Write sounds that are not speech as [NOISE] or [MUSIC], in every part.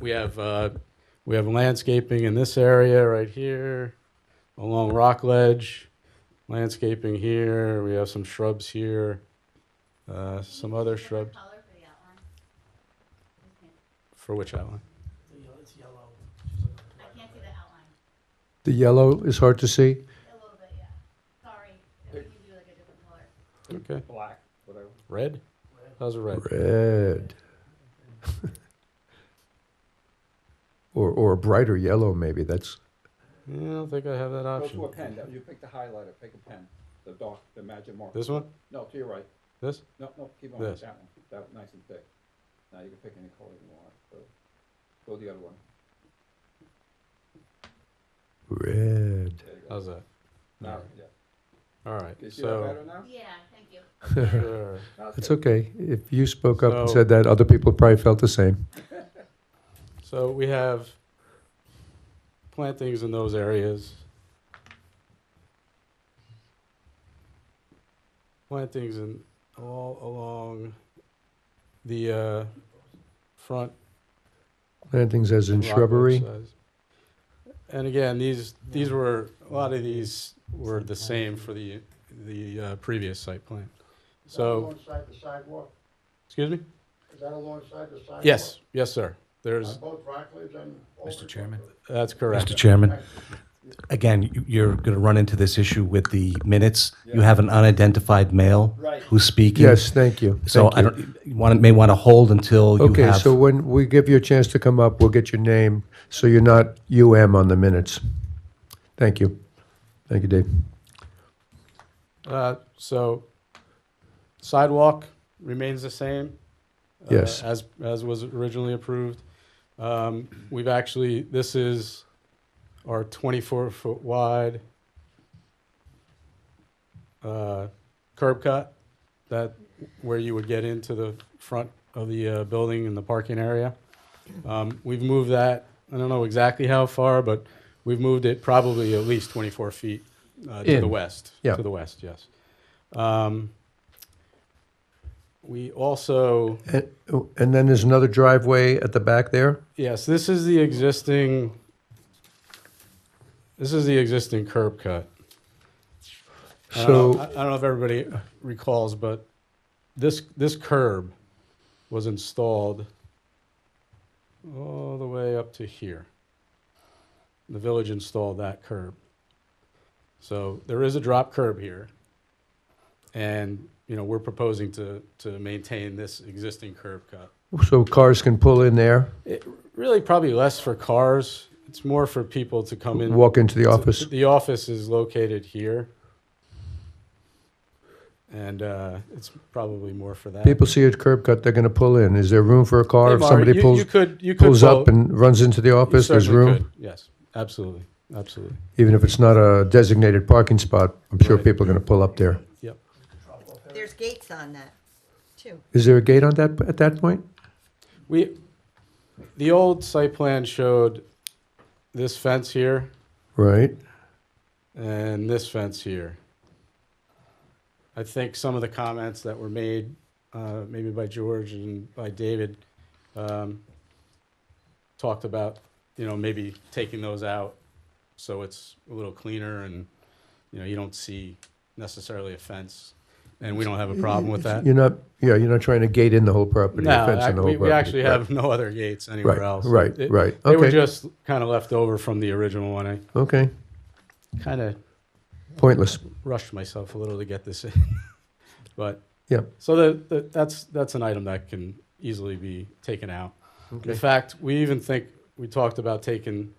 we have uh, we have landscaping in this area right here, along Rock Ledge, landscaping here. We have some shrubs here, uh, some other shrubs Color for the outline. Okay. for which outline? The yellow, it's yellow. She's looking at I the can't right of see it. the outline, The yellow is hard to see. a little bit, yeah. Sorry, we can do like a different color. Okay, black, whatever. red. How's it red? Red. [LAUGHS] or or a brighter yellow, maybe. That's Yeah, I don't think I have that Go option. to a pen, you pick the highlighter, pick a pen, the dark, the magic marker. This one? No, to your right, This? no, no, keep on with This. that one, that one, nice and thick. Now you can pick any color you want, go, go the other one, red. there you go. How's that? Now, yeah, All right. can you see that So better now? Yeah, thank you. [LAUGHS] [LAUGHS] sure. Now It's good. okay. If you spoke up and So- said that, other people probably felt the same. So we have plantings in those areas. Plantings in all along the uh, front. Plantings as in and rock shrubbery. sides. And again, these these were a lot of these were the same for the the uh, previous site plan. Is that So Alongside the sidewalk, excuse me. is that alongside the sidewalk? Yes, yes, sir. There's On both Rockledge and. Mr. Chairman? that's correct. Mr. Chairman, again, you- you're going to run into this issue with the minutes. You have an unidentified male Right. who's speaking. Yes, thank you. So thank I you. don't, you wanna- may want to hold until you Okay, have. so when we give you a chance to come up, we'll get your name so you're not UM on the minutes. Thank you. Thank you, Dave. Uh, so sidewalk remains the same. uh, Yes. As, as was originally approved. Um, we've actually, this is our twenty-four foot wide uh, curb cut that, where you would get into the front of the uh, building and the parking area. Um, we've moved that, I don't know exactly how far, but we've moved it probably at least twenty-four feet uh, to the In. west. Yeah. To the west, yes. Um, we also, And, oh, and then there's another driveway at the back there? yes, this is the existing, this is the existing curb cut. I don't know- I So, I don't know if everybody recalls, but this, this curb was installed all the way up to here. The village installed that curb. So there is a drop curb here. And, you know, we're proposing to, to maintain this existing curb cut. so cars can pull in there, It, really probably less for cars. It's more for people to come in. walk into the office? The office is located here. And uh, it's probably more for that. People see a curb cut, they're gonna pull in. Is there room for a car? Hey, If Mari, somebody you- pulls, you could, you could pulls up pull- you and runs into the office, there's certainly room? could. Yes, absolutely, absolutely. Even if it's not a designated parking spot, I'm sure Right. people are gonna pull up there. Yep. There's gates on that, too. Is there a gate on that, at that point? We, the old site plan showed this fence here Right, and this fence here. I think some of the comments that were made, uh, maybe by George and by David, um, talked about, you know, maybe taking those out so it's a little cleaner and, you know, you don't see necessarily a fence. And we don't have a problem with that. you're not, yeah, you're not trying to gate in the whole property, Uh, No, a fence ac- on the whole we, property. we actually Right. have no other gates anywhere Right, else. right, It- right. They were Okay. just kind of left over from the original one. I Okay, kind of pointless. rushed myself a little to get this in, [LAUGHS] but Yeah. So the, the, that's that's an item that can easily be taken out. In Okay. fact, we even think we talked about taking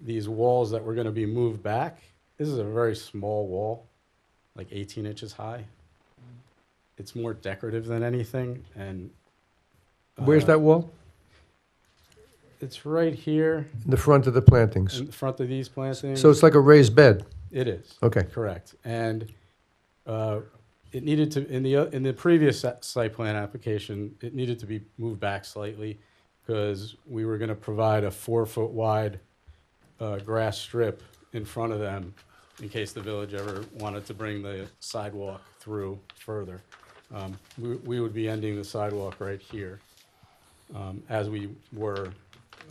these walls that were going to be moved back. This is a very small wall, like 18 inches high. It's more decorative than anything, and Where's uh, that wall? It's right here. In the front of the plantings. in front of these plantings? So it's like a raised bed. It is, Okay, correct. And uh, it needed to, in the, o- in the previous si- site plan application, it needed to be moved back slightly because we were going to provide a four-foot wide uh, grass strip in front of them in case the village ever wanted to bring the sidewalk through further. Um, We we would be ending the sidewalk right here um, as we were